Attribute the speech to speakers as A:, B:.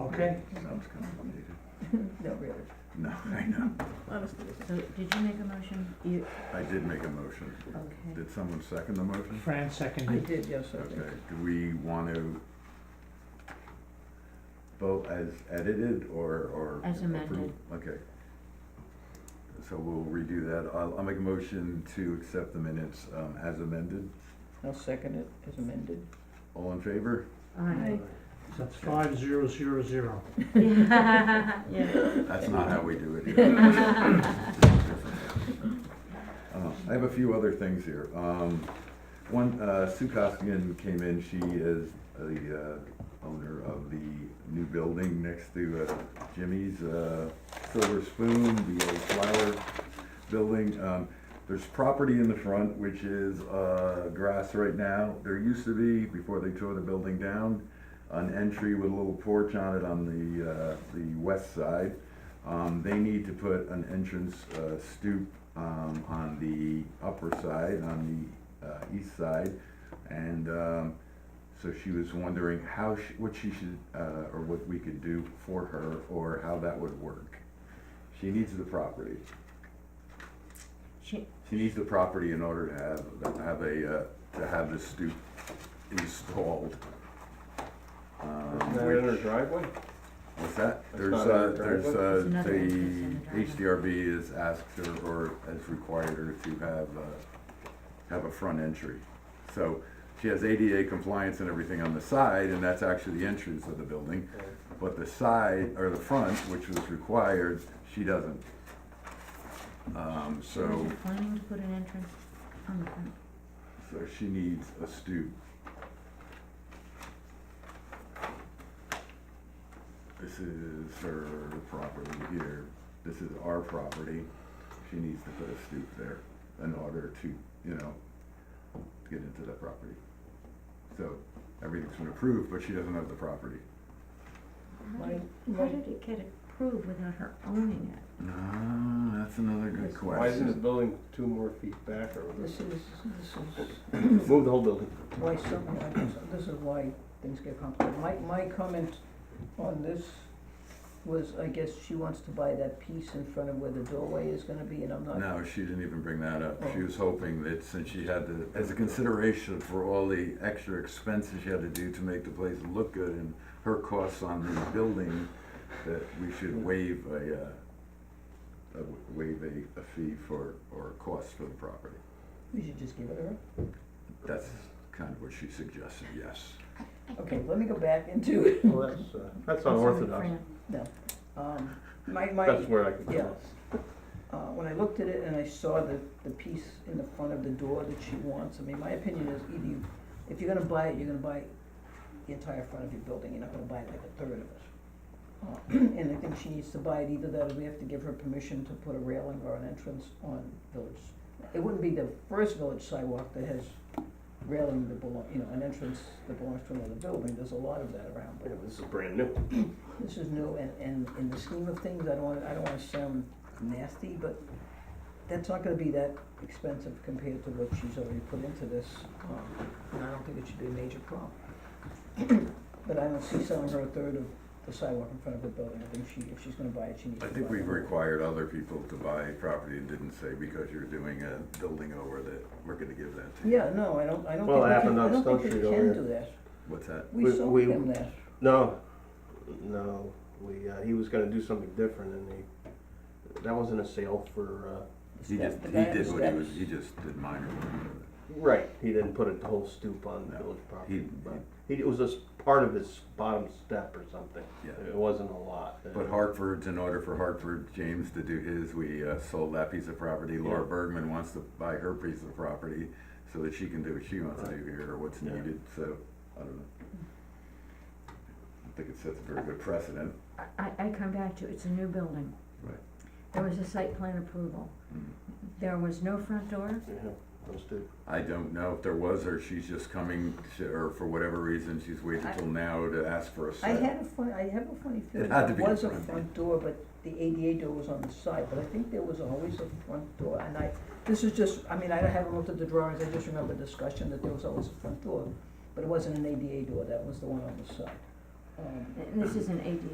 A: Okay.
B: Sounds complicated.
C: No, really.
B: No, I know.
C: Honestly.
D: So did you make a motion?
C: You,
B: I did make a motion.
D: Okay.
B: Did someone second the motion?
A: Fran
C: I
A: seconded.
C: did, yes, I did.
B: Okay, do we want to vote as edited or, or?
D: As amended.
B: approve? Okay. So we'll redo that. I'll, I'll make a motion to accept the minutes, um, as amended.
C: I'll second it as amended.
B: All in favor?
D: Aye.
A: So that's five zero zero zero.
D: Yeah, yeah.
B: That's not how we do it here. Uh, I have a few other things here. Um, One, uh, Sue Costigan came in, she is the uh, owner of the new building next to uh, Jimmy's uh, Silver Spoon, the old flower building. Um, There's property in the front which is uh, grass right now. There used to be, before they tore the building down, an entry with a little porch on it on the, uh, the west side. Um, they need to put an entrance, uh, stoop, um, on the upper side, on the, uh, east side. And, um, so she was wondering how she, what she should, uh, or what we could do for her, or how that would work. She needs the property.
D: She,
B: She needs the property in order to have, to have a, uh, to have the stoop installed. Um,
E: Isn't that in her
B: which-
E: driveway?
B: What's that?
E: That's
B: There's,
E: not
B: uh,
E: in the
B: there's,
E: driveway?
B: uh,
D: There's another entrance in the
B: the
D: driveway.
B: HDRB has asked her, or has required her to have, uh, have a front entry. So she has ADA compliance and everything on the side, and that's actually the entrance of the building. But the side, or the front, which was required, she doesn't. Um,
D: she
B: so,
D: wasn't planning to put an entrance on the front.
B: so she needs a stoop. This is her property here, this is our property, she needs to put a stoop there in order to, you know, get into that property. So, everything's been approved, but she doesn't have the property.
D: How
C: Right,
D: did, how
C: right.
D: did it get approved without her owning it?
B: No, Ah, that's another good question.
E: Why isn't the building two more feet back or
C: This
E: whatever?
C: is, this is
E: Move the whole building.
C: why something like this, this is why things get complicated. My, my comment on this was, I guess she wants to buy that piece in front of where the doorway is gonna be, and I'm not.
B: No, she didn't even bring that up. She
C: Oh.
B: was hoping that since she had to, as a consideration for all the extra expenses she had to do to make the place look good and her costs on the building, that we should waive a, uh, a w- waive a, a fee for, or a cost for the property.
C: We should just give it her.
B: That's kind of what she suggested, yes.
C: Okay, let me go back into it.
E: Well, that's, uh, that's
D: Sorry,
E: unorthodox.
D: Fran.
C: Um, my, my.
E: That's where I can
C: Yeah.
E: tell.
C: Uh, when I looked at it and I saw the, the piece in the front of the door that she wants, I mean, my opinion is either you, if you're gonna buy it, you're gonna buy the entire front of your building, you're not gonna buy like a third of it. Uh, And I think she needs to buy it, either that or we have to give her permission to put a railing or an entrance on village. It wouldn't be the first village sidewalk that has railing that belong, you know, an entrance that belongs to another building, there's a lot of that around, but
E: Yeah, this is brand new.
C: this is new, and, and in the scheme of things, I don't want, I don't wanna sound nasty, but that's not gonna be that expensive compared to what she's already put into this, um, and I don't think it should be a major problem. But I don't see selling her a third of the sidewalk in front of her building, I think she, if she's gonna buy it, she needs
B: I
C: to
B: think
C: buy
B: we've
C: it.
B: required other people to buy property and didn't say because you're doing a building over that, we're gonna give that to you.
C: Yeah, no, I don't, I don't think we
E: Well, it
C: can,
E: happened
C: I
E: on
C: don't think
E: Stone
C: we
E: Street over
C: can
E: here.
C: do that,
B: What's that?
C: we
E: We-
C: sold
E: we-
C: him that,
E: No, no, we, uh, he was gonna do something different and he, that wasn't a sale for, uh,
C: the
B: He just,
C: step, the
B: he
C: guy at the
B: did what he was,
C: steps.
B: he just did minor work.
E: uh, right, he didn't put a whole stoop on
B: No,
E: village
B: He,
E: property. But he, it was a s part of his bottom step or something.
B: yeah.
E: It wasn't a lot. Uh,
B: But Hartford's, in order for Hartford James to do his, we uh, sold that piece of property. Laura
E: Yeah.
B: Bergman wants to buy her piece of property so that she can do what she wants to do here or what's
E: Yeah.
B: needed, so, I don't know. I think it sets a very good precedent.
D: I, I- I come back to, it's a new building.
B: Right.
D: There was a site plan approval.
E: Hmm.
B: Mm.
D: There was no front door.
E: Yeah, those two.
B: I don't know if there was, or she's just coming, to- or for whatever reason, she's waiting till now to ask for a
C: I
B: set.
C: had a funny, I have a funny feeling,
B: had to
C: it
B: be the
C: was a
B: front.
C: front door, but the ADA door was on the side, but I think there was always a front door, and I, this is just, I mean, I haven't looked at the drawings, I just remember discussion that there was always a front door, but it wasn't an ADA door, that was the one on the side. Um,
D: And this is an ADA